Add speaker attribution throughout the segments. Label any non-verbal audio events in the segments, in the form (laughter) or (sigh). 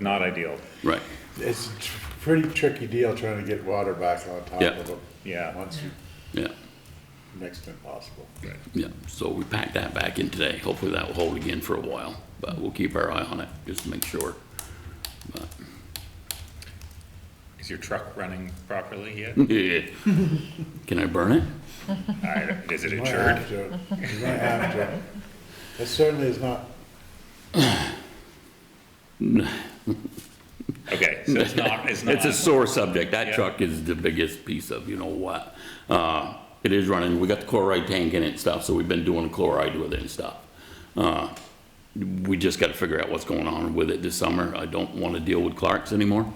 Speaker 1: not ideal.
Speaker 2: Right.
Speaker 3: It's a tr- pretty tricky deal trying to get water back on top
Speaker 2: Yeah.
Speaker 3: of them.
Speaker 1: Yeah.
Speaker 3: Once you
Speaker 2: Yeah,
Speaker 3: next to impossible.
Speaker 2: yeah. So we packed that back in today. Hopefully that will hold again for a while, but we'll keep our eye on it just to make sure. (laughs) But,
Speaker 1: Is your truck running properly
Speaker 2: (laughs)
Speaker 1: yet?
Speaker 2: yeah. Can I burn it?
Speaker 1: I- Is it
Speaker 3: You might
Speaker 1: insured?
Speaker 3: have to, you might have to. It certainly is not,
Speaker 1: Okay, so it's not, it's not.
Speaker 2: It's a sore subject. That
Speaker 1: Yeah.
Speaker 2: truck is the biggest piece of, you know what? Uh, it is running, we got the chloride tank in it and stuff, so we've been doing chloride with it and stuff. Uh, we just gotta figure out what's going on with it this summer. I don't wanna deal with Clark's anymore.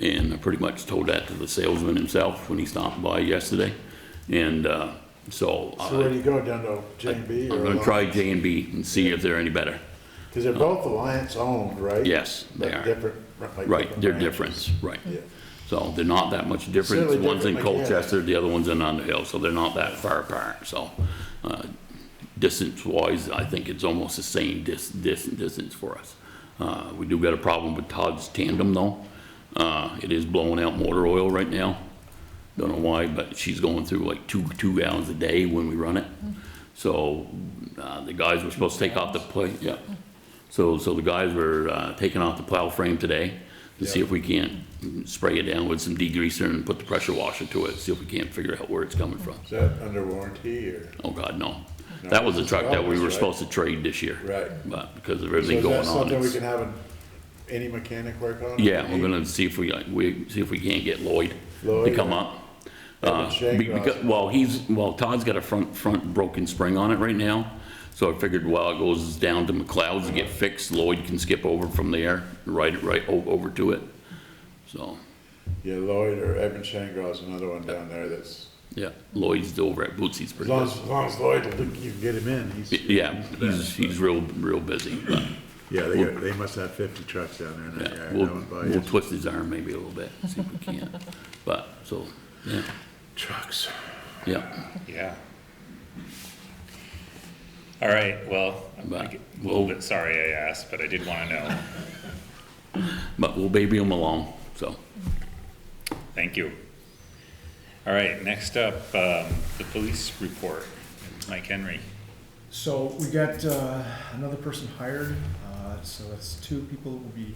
Speaker 2: And I pretty much told that to the salesman himself when he stopped by yesterday. And, uh, so.
Speaker 3: so where do you go, down to J and B?
Speaker 2: I'm gonna try J and B and see if they're any better.
Speaker 3: Because they're both Alliance owned, right?
Speaker 2: Yes, they
Speaker 3: But
Speaker 2: are.
Speaker 3: Different. like
Speaker 2: Right, they're
Speaker 3: branches.
Speaker 2: different, right.
Speaker 3: Yeah.
Speaker 2: So they're not that much difference.
Speaker 3: Certainly
Speaker 2: One's in
Speaker 3: different, like, yeah.
Speaker 2: Colchester, the other one's in Underhill, so they're not that far apart, so. uh, Distance-wise, I think it's almost the same dis, dis, distance for us. Uh, we do got a problem with Todd's tandem though. Uh, it is blowing out motor oil right now. Don't know why, but she's going through like two, two gallons a day when we run it. So, uh, the guys were supposed to take off the plate, yeah. So, so the guys were, uh, taking off the plow frame today to see if we can't spray it down with some degreaser and put the pressure washer to it, see if we can't figure out where it's coming from.
Speaker 3: Is that under warranty or?
Speaker 2: Oh, God, no. That was a truck that we were supposed to trade this year.
Speaker 3: Right.
Speaker 2: But because of
Speaker 3: So
Speaker 2: everything
Speaker 3: is that
Speaker 2: going on,
Speaker 3: something we
Speaker 2: it's,
Speaker 3: can have an- any mechanic work on?
Speaker 2: yeah, we're
Speaker 3: Any-
Speaker 2: gonna see if we, like, we, see if we can't get Lloyd to
Speaker 3: Lloyd
Speaker 2: come
Speaker 3: or-
Speaker 2: up.
Speaker 3: Yeah, but
Speaker 2: Uh,
Speaker 3: Shane
Speaker 2: be-
Speaker 3: Ross-
Speaker 2: becau- well, he's, well, Todd's got a front, front broken spring on it right now, so I figured while it goes down to McLeod's to get fixed, Lloyd can skip over from there, right, right o- over to it. So,
Speaker 3: Yeah, Lloyd or Evan Shangrow's another one down there that's,
Speaker 2: yeah, Lloyd's over at Bootsy's
Speaker 3: as
Speaker 2: pretty
Speaker 3: long
Speaker 2: much.
Speaker 3: as, as long as Lloyd, will do- you can get him in, he's.
Speaker 2: Yeah, he's, he's real, real busy, but,
Speaker 3: Yeah, they, got- they must have fifty trucks down there in that
Speaker 2: yeah,
Speaker 3: yard.
Speaker 2: we'll,
Speaker 3: That one by
Speaker 2: we'll
Speaker 3: his
Speaker 2: twist his arm maybe a little bit, see if we can. But, so, yeah,
Speaker 3: Trucks.
Speaker 2: yeah.
Speaker 1: Yeah. All right, well, I'm
Speaker 2: But
Speaker 1: a little bit sorry I asked, but I did want to know.
Speaker 2: But we'll baby them along, so.
Speaker 1: Thank you. All right, next up, um, the police report, Mike Henry.
Speaker 4: So we got uh, another person hired, uh, so that's two people will be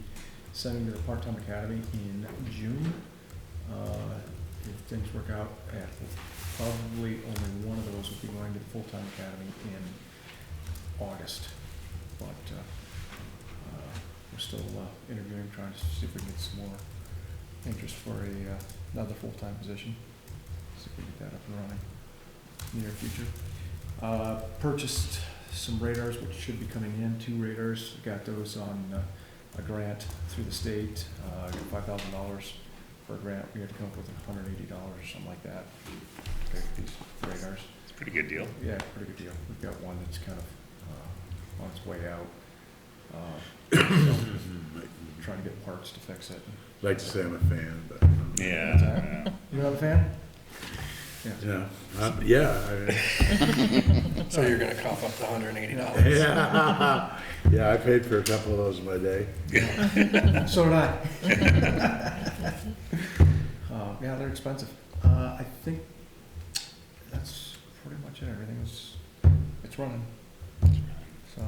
Speaker 4: sending to the part-time academy in June. Uh, If things work out, yeah, probably only one of those will be going to the full-time academy in August. But uh, uh, we're still uh, interviewing, trying to see if we can get some more interest for a, uh, another full-time position. See if we can get that up and running in the near future. Uh, Purchased some radars, which should be coming in, two radars, got those on uh, a grant through the state, uh, got five thousand dollars for a grant, we had to come up with hundred eighty dollars or something like that. to get These radars,
Speaker 1: It's a pretty good deal.
Speaker 4: yeah, pretty good deal, we've got one that's kind of uh, on its way out. Uh, (coughs) so, Trying to get parts to fix it.
Speaker 3: Hmm, Like to say I'm a fan, but,
Speaker 1: Yeah. uh,
Speaker 4: You not a fan?
Speaker 3: you know, I'm- yeah, I mean,
Speaker 5: (laughs) So you're gonna cough up the hundred and eighty dollars?
Speaker 3: (laughs) yeah. (laughs) Yeah, I paid for a couple of those in my day.
Speaker 4: So did I. Uh, yeah, they're expensive. Uh, I think that's pretty much it. Everything is, it's running, so.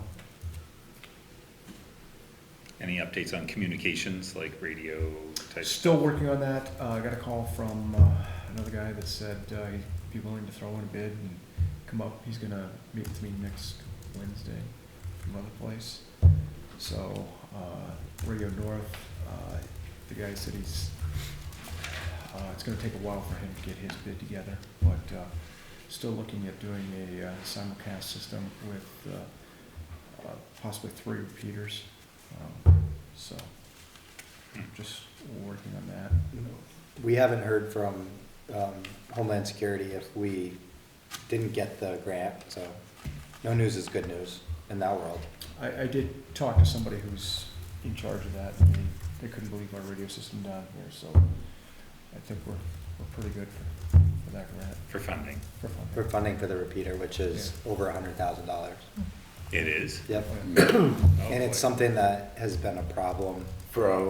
Speaker 1: Any updates on communications, like radio type?
Speaker 4: Still working on that. Uh, I got a call from, uh, another guy that said, uh, he'd be willing to throw in a bid and come up. He's gonna meet with me next Wednesday from another place. So, uh, Radio North, uh, the guy said he's, uh, it's gonna take a while for him to get his bid together, but, uh, still looking at doing a uh, simulcast system with, uh, uh, possibly three repeaters. Um, So, just working on that.
Speaker 6: We haven't heard from um, Homeland Security if we didn't get the grant, so no news is good news in that world.
Speaker 4: I, I did talk to somebody who's in charge of that, and they, they couldn't believe our radio system down here, so I think we're, we're pretty good for, for that grant,
Speaker 1: For funding,
Speaker 4: for fun.
Speaker 6: We're funding for the repeater, which is over a hundred thousand dollars.
Speaker 1: it is.
Speaker 6: Yep,
Speaker 4: Yeah.
Speaker 1: Oh,
Speaker 6: and it's
Speaker 1: boy.
Speaker 6: something that has been a problem
Speaker 3: for a